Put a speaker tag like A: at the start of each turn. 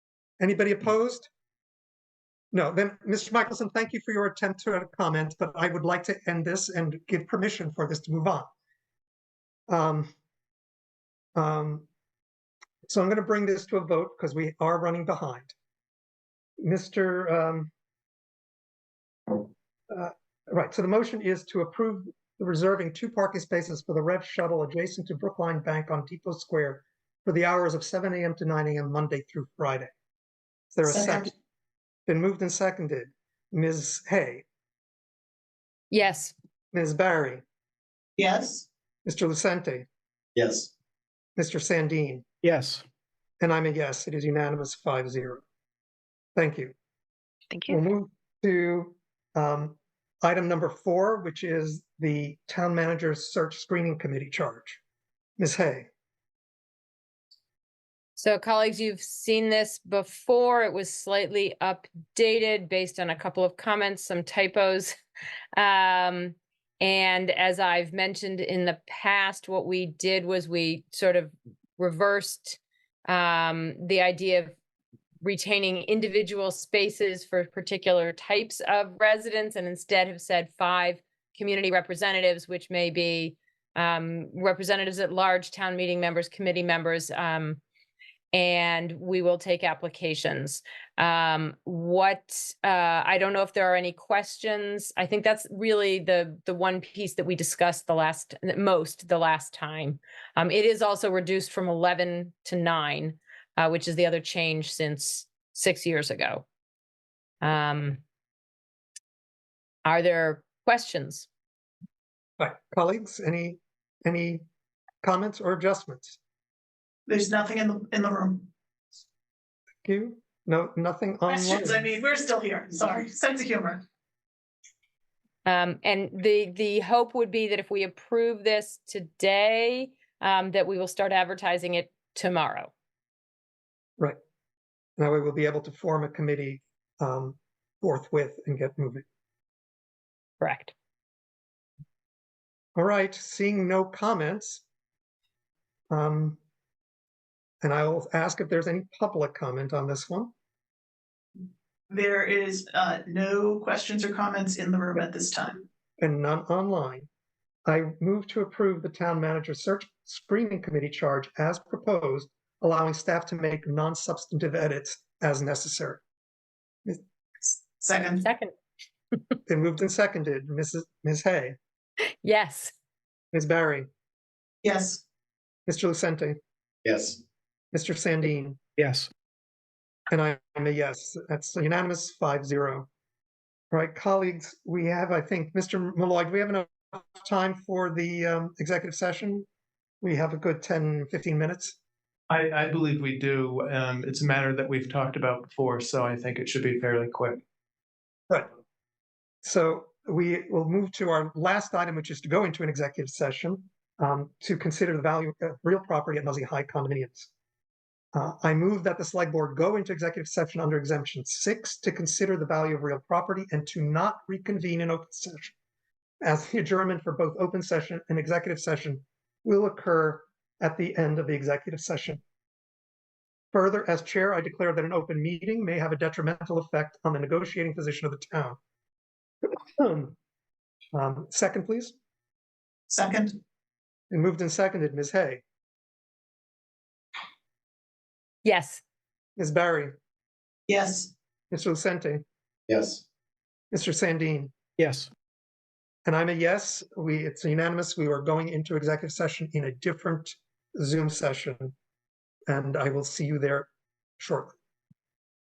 A: Anybody opposed? No, then, Mr. Michelson, thank you for your attempt to comment, but I would like to end this and give permission for this to move on. Um, um, So I'm going to bring this to a vote because we are running behind. Mr. um, uh, Right, so the motion is to approve the reserving two parking spaces for the Rev Shuttle adjacent to Brookline Bank on Depot Square for the hours of 7 AM to 9 AM, Monday through Friday. Is there a second?
B: Second.
A: Been moved and seconded. Ms. Hay,
C: Yes,
A: Ms. Barry,
B: Yes.
A: Mr. Lucente,
B: Yes.
A: Mr. Sandin,
D: Yes.
A: and I'm a yes. It is unanimous, five zero. Thank you.
E: Thank
A: We'll
E: you.
A: move to um, item number four, which is the Town Manager's Search Screening Committee charge. Ms. Hay,
C: so colleagues, you've seen this before. It was slightly updated based on a couple of comments, some typos. Um, and as I've mentioned in the past, what we did was we sort of reversed um, the idea of retaining individual spaces for particular types of residents and instead have said five community representatives, which may be um, representatives at large, town meeting members, committee members, um, and we will take applications. Um, what, uh, I don't know if there are any questions. I think that's really the, the one piece that we discussed the last, most the last time. Um, it is also reduced from 11 to nine, uh, which is the other change since six years ago. Um, are there questions?
A: Right, uh, colleagues, any, any comments or adjustments?
B: There's nothing in the, in the room.
A: Thank You, no, nothing online.
B: Questions, I mean, we're still here, sorry, sense of humor.
C: Um, and the, the hope would be that if we approve this today, um, that we will start advertising it tomorrow.
A: That way we'll be able to form a committee um, forthwith and get moving.
C: Correct.
A: All right, seeing no comments. um, And I will ask if there's any public comment on this one.
B: There is, uh, no questions or comments in the room at this time.
A: and none online. I move to approve the town manager search screening committee charge as proposed, allowing staff to make non-substantive edits as necessary.
B: Second,
C: Second,
A: They moved and seconded, Mrs. Ms. Hay,
C: yes,
A: Ms. Barry,
B: yes.
A: Mr. Lucente,
B: Yes.
A: Mr. Sandin,
D: Yes.
A: and I am a yes. That's unanimous, five zero. All right, colleagues, we have, I think, Mr. Malloy, do we have enough time for the um, executive session? We have a good 10, 15 minutes.
F: I, I believe we do. Um, it's a matter that we've talked about before, so I think it should be fairly quick.
A: Right. So we will move to our last item, which is to go into an executive session um, to consider the value of real property at Muzzy High condominiums. Uh, I move that the select board go into executive session under exemption six to consider the value of real property and to not reconvene in open session. As the adjournment for both open session and executive session will occur at the end of the executive session. Further, as chair, I declare that an open meeting may have a detrimental effect on the negotiating position of the town. Um, Second, please.
B: Second,
A: And moved and seconded, Ms. Hay,
C: yes,
A: Ms. Barry,
B: yes.
A: Mr. Lucente,
B: Yes.
A: Mr. Sandin.
D: Yes.
A: And I'm a yes. We, it's unanimous. We are going into executive session in a different Zoom session. And I will see you there shortly.